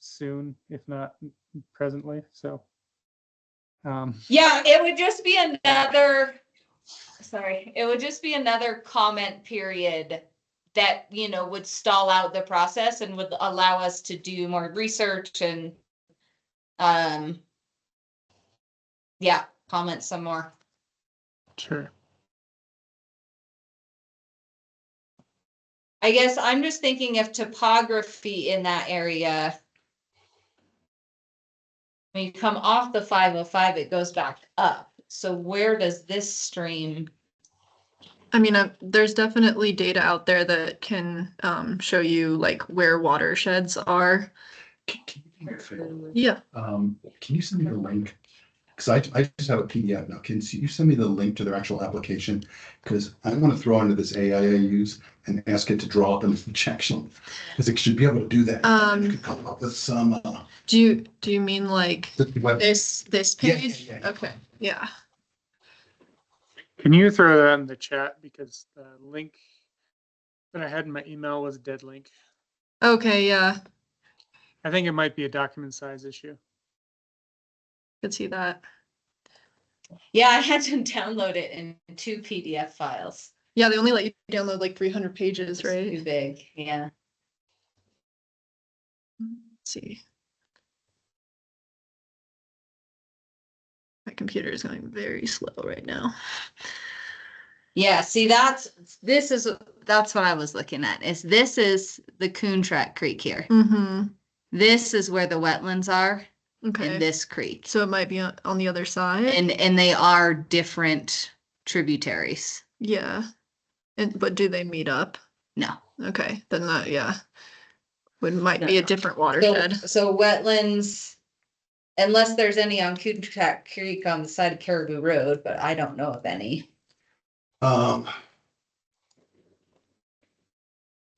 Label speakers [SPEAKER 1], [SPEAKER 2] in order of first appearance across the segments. [SPEAKER 1] soon, if not presently, so. Um,
[SPEAKER 2] Yeah, it would just be another, sorry, it would just be another comment period that, you know, would stall out the process and would allow us to do more research and, um, yeah, comment some more.
[SPEAKER 1] sure.
[SPEAKER 2] I guess I'm just thinking of topography in that area. When you come off the five oh five, it goes back up. So where does this stream?
[SPEAKER 3] I mean, uh, there's definitely data out there that can um, show you like where watersheds are.
[SPEAKER 4] Can can you do me a favor?
[SPEAKER 3] Yeah,
[SPEAKER 4] Um, can you send me the link? Because I, I just have a PDF now. Can you send me the link to their actual application? Because I want to throw into this AI I use and ask it to draw up an objection. Because it should be able to do that.
[SPEAKER 3] Um,
[SPEAKER 4] It could Come up with some, uh,
[SPEAKER 3] do you do you mean like
[SPEAKER 4] the web-
[SPEAKER 3] this this
[SPEAKER 4] Yeah, yeah,
[SPEAKER 3] page?
[SPEAKER 4] yeah, yeah.
[SPEAKER 3] Okay, yeah.
[SPEAKER 1] Can you throw that in the chat because the link that I had in my email was a dead link.
[SPEAKER 3] Okay, yeah.
[SPEAKER 1] I think it might be a document size issue.
[SPEAKER 3] Could see that.
[SPEAKER 2] Yeah, I had to download it in two PDF files.
[SPEAKER 3] Yeah, they only let you download like 300
[SPEAKER 2] It's
[SPEAKER 3] pages,
[SPEAKER 2] Too
[SPEAKER 3] right?
[SPEAKER 2] big, yeah.
[SPEAKER 3] Let's see. My computer is going very slow right now.
[SPEAKER 2] Yeah, see, that's, this is, that's what I was looking at, is this is the Coon Track Creek here.
[SPEAKER 3] Mm-hmm.
[SPEAKER 2] This is where the wetlands are in
[SPEAKER 3] Okay.
[SPEAKER 2] this creek.
[SPEAKER 3] So it might be on, on the other side.
[SPEAKER 2] And, and they are different tributaries.
[SPEAKER 3] yeah. And but do they meet up?
[SPEAKER 2] No.
[SPEAKER 3] Okay, then that, yeah. Would might
[SPEAKER 2] No,
[SPEAKER 3] be a
[SPEAKER 2] no.
[SPEAKER 3] different
[SPEAKER 2] So,
[SPEAKER 3] watershed.
[SPEAKER 2] so wetlands, unless there's any on Coon Track Creek on the side of Caribou Road, but I don't know of any.
[SPEAKER 4] um.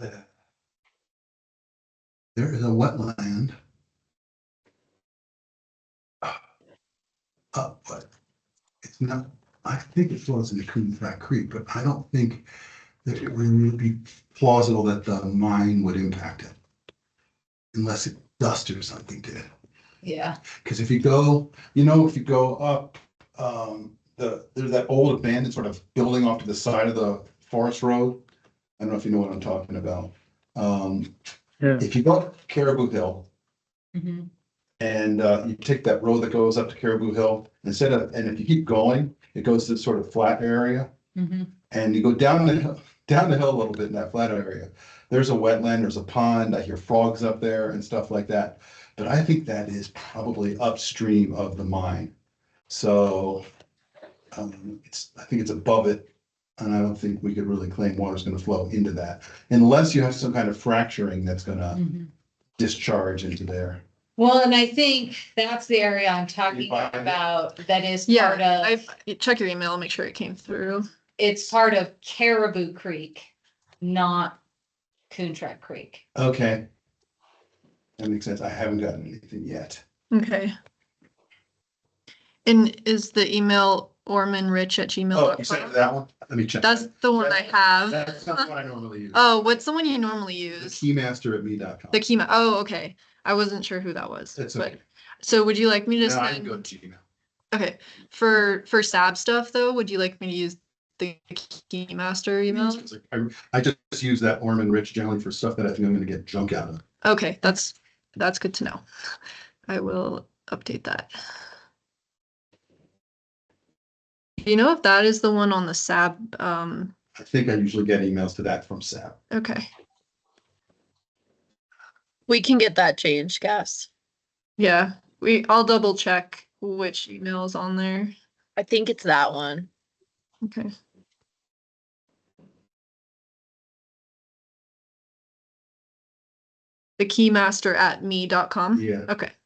[SPEAKER 4] the- There is a wetland. uh, Up, but it's not, I think it flows into Coon Flat Creek, but I don't think that it would be plausible that the mine would impact it. Unless it dusted or something did.
[SPEAKER 2] Yeah.
[SPEAKER 4] Because if you go, you know, if you go up, um, the, there's that old abandoned sort of building off to the side of the forest road. I don't know if you know what I'm talking about. Um,
[SPEAKER 1] Yeah.
[SPEAKER 4] if you go up Caribou Hill
[SPEAKER 2] Mm-hmm.
[SPEAKER 4] and, uh, you take that road that goes up to Caribou Hill, instead of, and if you keep going, it goes to this sort of flat area.
[SPEAKER 2] Mm-hmm.
[SPEAKER 4] And you go down the, hill- down the hill a little bit in that flat area. There's a wetland, there's a pond, I hear frogs up there and stuff like that. But I think that is probably upstream of the mine. So um, it's, I think it's above it. And I don't think we could really claim water's gonna flow into that unless you have some kind of fracturing that's gonna
[SPEAKER 2] Mm-hmm.
[SPEAKER 4] discharge into there.
[SPEAKER 2] Well, and I think that's the area I'm talking
[SPEAKER 4] find it?
[SPEAKER 2] about that is part
[SPEAKER 3] Yeah,
[SPEAKER 2] of,
[SPEAKER 3] I've checked your email, make sure it came through.
[SPEAKER 2] it's part of Caribou Creek, not Coontrack Creek.
[SPEAKER 4] Okay. That makes sense. I haven't gotten anything yet.
[SPEAKER 3] Okay. And is the email ormanrich at
[SPEAKER 4] Oh, you said
[SPEAKER 3] gmail.com?
[SPEAKER 4] that one? Let me check.
[SPEAKER 3] That's the one I have.
[SPEAKER 4] That's not what I normally use.
[SPEAKER 3] Oh, what's the one you normally
[SPEAKER 4] The
[SPEAKER 3] use?
[SPEAKER 4] keymaster at me.com.
[SPEAKER 3] The Kima. Oh, okay. I wasn't sure who that was.
[SPEAKER 4] That's
[SPEAKER 3] but-
[SPEAKER 4] okay.
[SPEAKER 3] So would you like me to
[SPEAKER 4] No, I can
[SPEAKER 3] send?
[SPEAKER 4] go to Gmail.
[SPEAKER 3] Okay, for, for SAB stuff though, would you like me to use the Keymaster email?
[SPEAKER 4] It's like, I, I just use that Orman Rich generally for stuff that I think I'm gonna get junk out of.
[SPEAKER 3] Okay, that's, that's good to know. I will update that. Do you know if that is the one on the SAB? Um,
[SPEAKER 4] I think I usually get emails to that from SAP.
[SPEAKER 3] okay,
[SPEAKER 5] We can get that changed, Gus.
[SPEAKER 3] yeah, we, I'll double check which email is on there.
[SPEAKER 5] I think it's that one.
[SPEAKER 3] Okay. The Keymaster at me dot com?
[SPEAKER 4] Yeah.
[SPEAKER 3] Mm-hmm. Okay,